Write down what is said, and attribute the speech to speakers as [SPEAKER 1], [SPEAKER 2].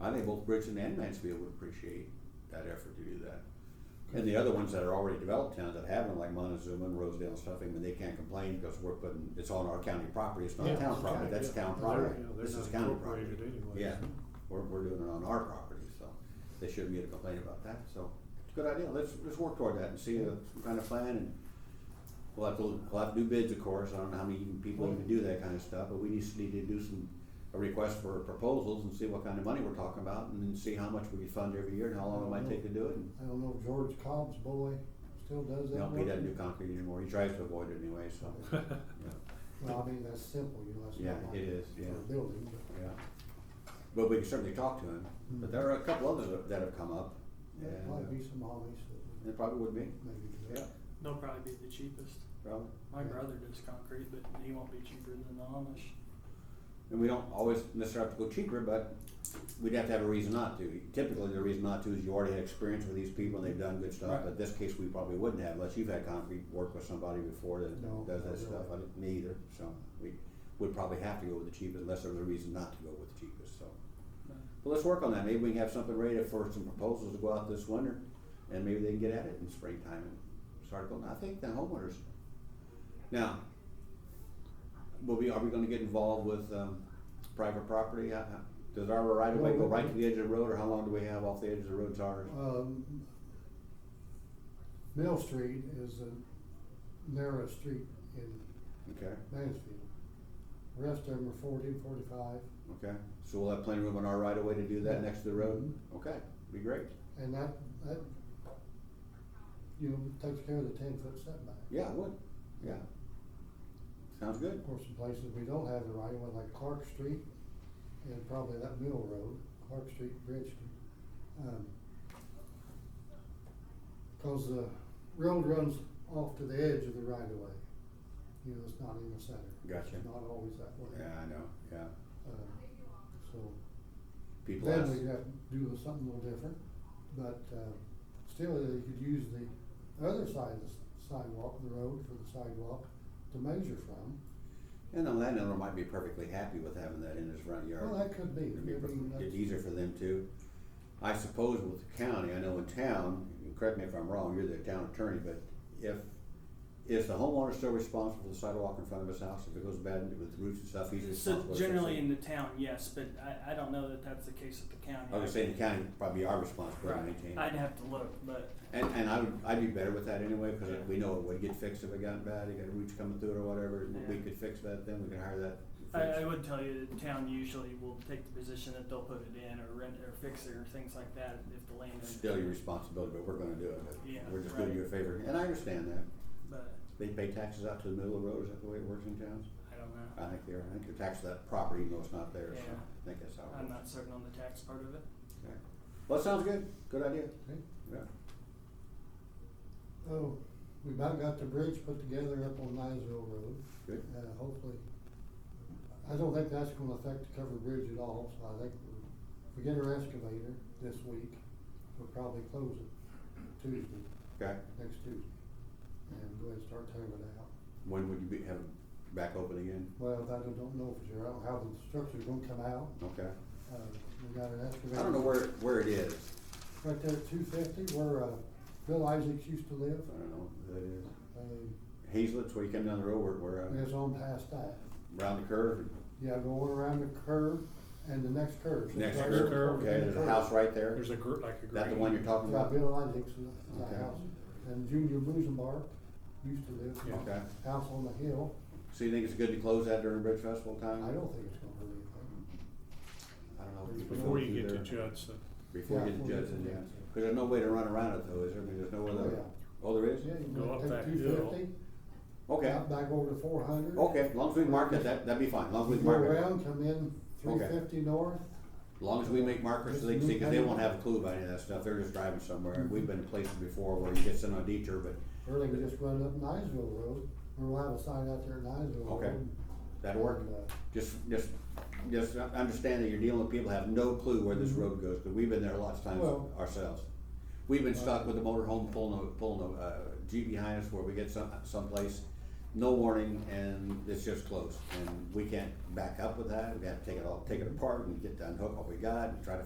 [SPEAKER 1] I think both Bridgeton and Mansfield would appreciate that effort to do that. And the other ones that are already developed towns that have them, like Montezuma and Rosedale and stuff, I mean, they can't complain because we're putting, it's on our county property, it's
[SPEAKER 2] Yeah,
[SPEAKER 1] not town
[SPEAKER 2] it's
[SPEAKER 1] property,
[SPEAKER 2] county,
[SPEAKER 1] that's
[SPEAKER 2] yeah.
[SPEAKER 1] town
[SPEAKER 2] They're-
[SPEAKER 1] property,
[SPEAKER 2] yeah, they're
[SPEAKER 1] this is
[SPEAKER 2] not
[SPEAKER 1] county property.
[SPEAKER 2] incorporated anyway,
[SPEAKER 1] Yeah,
[SPEAKER 2] so.
[SPEAKER 1] we're, we're doing it on our property, so they shouldn't get a complaint about that, so, it's a good idea, let's, let's work toward that and see a, some kind of plan and we'll have to, we'll have to do bids, of course, I don't know how many even people even do that kind of stuff, but we just need to do some, a request for proposals and see what kind of money we're talking about and then see how much we fund every year and how long it might take to do it and
[SPEAKER 3] I don't know, George Cobb's boy still does that
[SPEAKER 1] no, he
[SPEAKER 3] work?
[SPEAKER 1] doesn't do concrete anymore. He tries to avoid it anyway, so,
[SPEAKER 3] Well, I mean, that's simple, you know, that's
[SPEAKER 1] yeah,
[SPEAKER 3] not
[SPEAKER 1] it is,
[SPEAKER 3] like
[SPEAKER 1] yeah,
[SPEAKER 3] for a building, but.
[SPEAKER 1] yeah. But we can certainly talk to him. But there are a couple others that- that have come up.
[SPEAKER 3] There
[SPEAKER 1] and, uh,
[SPEAKER 3] might be some hobbies that
[SPEAKER 1] It probably would be,
[SPEAKER 3] we maybe do
[SPEAKER 1] yeah,
[SPEAKER 3] that.
[SPEAKER 4] They'll probably be the cheapest.
[SPEAKER 1] probably.
[SPEAKER 4] My brother does concrete, but he won't be cheaper than the Amish.
[SPEAKER 1] And we don't always necessarily have to go cheaper, but we'd have to have a reason not to. Typically, the reason not to is you already had experience with these people and they've done good stuff.
[SPEAKER 4] Right.
[SPEAKER 1] But this case, we probably wouldn't have unless you've had concrete work with somebody before that
[SPEAKER 3] No,
[SPEAKER 1] does that
[SPEAKER 3] not
[SPEAKER 1] stuff. I
[SPEAKER 3] really.
[SPEAKER 1] didn't, me either, so we would probably have to go with the cheapest unless there was a reason not to go with the cheapest, so. Well, let's work on that. Maybe we can have something ready for some proposals to go out this winter, and maybe they can get at it in springtime and start going. I think the homeowners. Now, will we, are we gonna get involved with, um, private property? How- how- Does our right of way go right to the edge of the road, or how long do we have off the edge of the road to ours?
[SPEAKER 3] Um, Mill Street is the narrowest street in
[SPEAKER 1] Okay,
[SPEAKER 3] Mansfield. The Rest of them are forty, forty-five,
[SPEAKER 1] okay. So we'll have plenty of room on our right of way to do that next to the road? Okay, be great.
[SPEAKER 3] and that, that, you know, takes care of the ten-foot setback.
[SPEAKER 1] Yeah, it would, yeah. Sounds good.
[SPEAKER 3] Of course, in places we don't have the right of way, like Clark Street, and probably that Mill Road, Clark Street, Bridgeton. um, Cause the road runs off to the edge of the right of way, you know, it's not in the center.
[SPEAKER 1] Gotcha.
[SPEAKER 3] It's not always that way.
[SPEAKER 1] Yeah, I know, yeah.
[SPEAKER 3] Um, So,
[SPEAKER 1] People ask.
[SPEAKER 3] then we have to do something a little different, but, uh, still, you could use the other side of the s- sidewalk, the road for the sidewalk to measure from.
[SPEAKER 1] And the landowner might be perfectly happy with having that in his front yard.
[SPEAKER 3] Well, that could be.
[SPEAKER 1] It'd be
[SPEAKER 3] I mean,
[SPEAKER 1] per-
[SPEAKER 3] that's-
[SPEAKER 1] It's easier for them too. I suppose with the county, I know in town, and correct me if I'm wrong, you're the town attorney, but if, is the homeowner still responsible for the sidewalk in front of his house if it goes bad and with roots and stuff, he's
[SPEAKER 4] So
[SPEAKER 1] responsible?
[SPEAKER 4] generally in the town, yes, but I, I don't know that that's the case at the county.
[SPEAKER 1] I would say the county would probably be our responsibility to
[SPEAKER 4] Right.
[SPEAKER 1] maintain. it.
[SPEAKER 4] I'd have to look, but
[SPEAKER 1] And, and I would, I'd be better with that anyway, cause we know it would get fixed if it got bad, it got roots coming through it or whatever, and we
[SPEAKER 4] Yeah.
[SPEAKER 1] could fix that then, we could hire that.
[SPEAKER 4] I, I
[SPEAKER 1] fixed.
[SPEAKER 4] would tell you the town usually will take the position that they'll put it in or rent or fix it or things like that if the landowner.
[SPEAKER 1] Still your responsibility, but we're gonna do it, but
[SPEAKER 4] Yeah,
[SPEAKER 1] we're just doing
[SPEAKER 4] right.
[SPEAKER 1] you a favor, and I understand that.
[SPEAKER 4] But
[SPEAKER 1] They pay taxes out to the middle of the road, is that the way it works in towns?
[SPEAKER 4] I don't know.
[SPEAKER 1] I think they're, I think they're taxed to that property, even though it's not theirs, so
[SPEAKER 4] Yeah.
[SPEAKER 1] I think that's how it
[SPEAKER 4] I'm
[SPEAKER 1] works.
[SPEAKER 4] not certain on the tax part of it.
[SPEAKER 1] Okay. Well, that sounds good, good idea,
[SPEAKER 3] Okay.
[SPEAKER 1] yeah.
[SPEAKER 3] Oh, we about got the bridge put together up on Niceville Road.
[SPEAKER 1] Good.
[SPEAKER 3] Uh, hopefully, I don't think that's gonna affect the covered bridge at all, so I think we, we get our excavator this week. We'll probably close it Tuesday,
[SPEAKER 1] Okay,
[SPEAKER 3] next Tuesday, and go ahead and start tearing it out.
[SPEAKER 1] when would you be, have it back open again?
[SPEAKER 3] Well, I don't don't know for sure, I don't know how the structure's gonna come out,
[SPEAKER 1] Okay,
[SPEAKER 3] uh, we got an
[SPEAKER 1] I
[SPEAKER 3] excavator.
[SPEAKER 1] don't know where, where it is,
[SPEAKER 3] Right there at two fifty, where, uh, Bill Isaacs used to live,
[SPEAKER 1] I don't know where that is.
[SPEAKER 3] uh,
[SPEAKER 1] Hazelitz, where you come down the road, where, where, uh,
[SPEAKER 3] it's on past that.
[SPEAKER 1] round the curve,
[SPEAKER 3] Yeah, going around the curve and the next curve. So
[SPEAKER 1] next
[SPEAKER 3] it's right
[SPEAKER 1] curve,
[SPEAKER 3] there.
[SPEAKER 2] curve,
[SPEAKER 1] okay, there's a house right there, is
[SPEAKER 2] There's a gr- like a green.
[SPEAKER 1] that the one you're talking
[SPEAKER 3] Yeah,
[SPEAKER 1] about?
[SPEAKER 3] Bill Isaac's is the
[SPEAKER 1] Okay.
[SPEAKER 3] house. And Junior Boozenbar used to live,
[SPEAKER 2] Yeah.
[SPEAKER 1] Okay,
[SPEAKER 3] house on the hill.
[SPEAKER 1] so you think it's good to close that during Bridge Festival
[SPEAKER 3] I
[SPEAKER 1] time?
[SPEAKER 3] don't think it's gonna hurt anything.
[SPEAKER 1] I don't know. if you can go
[SPEAKER 2] Before
[SPEAKER 1] through
[SPEAKER 2] you get
[SPEAKER 1] there.
[SPEAKER 2] to Judson.
[SPEAKER 1] Before you
[SPEAKER 3] Yeah,
[SPEAKER 1] get to
[SPEAKER 3] before you
[SPEAKER 1] Judson,
[SPEAKER 3] get
[SPEAKER 1] yeah.
[SPEAKER 3] to
[SPEAKER 1] 'Cause
[SPEAKER 3] Judson.
[SPEAKER 1] there's no way to run around it though, is there? I mean, there's no
[SPEAKER 3] Oh,
[SPEAKER 1] other,
[SPEAKER 3] yeah.
[SPEAKER 1] oh, there is?
[SPEAKER 3] Yeah,
[SPEAKER 2] Go
[SPEAKER 3] you
[SPEAKER 2] up
[SPEAKER 3] can
[SPEAKER 2] that
[SPEAKER 3] take two
[SPEAKER 2] hill.
[SPEAKER 3] fifty,
[SPEAKER 1] Okay, Oh,
[SPEAKER 3] out back over to four hundred.
[SPEAKER 1] okay, as long as we mark it, that, that'd be fine, as long as we
[SPEAKER 3] Go
[SPEAKER 1] mark it.
[SPEAKER 3] around, come in three fifty north.
[SPEAKER 1] As long as we make markers so they can see, cause they won't have a clue about any of that stuff, they're just driving somewhere,
[SPEAKER 3] Mm-hmm.
[SPEAKER 1] and we've been in places before where you get sent on a detour, but
[SPEAKER 3] Or they can just run up Niceville Road, or we'll have a sign out there at Niceville Road.
[SPEAKER 1] Okay. that'll work.
[SPEAKER 3] And, uh,
[SPEAKER 1] Just, just, just understand that you're dealing with people who have no clue where this road goes, cause we've been there lots of times
[SPEAKER 3] Well-
[SPEAKER 1] ourselves. We've been stuck with a motorhome pulling a, pulling a, uh, Jeep behind us where we get some, someplace, no warning, and it's just closed. And we can't back up with that, we gotta take it all, take it apart and get to unhook what we got and try to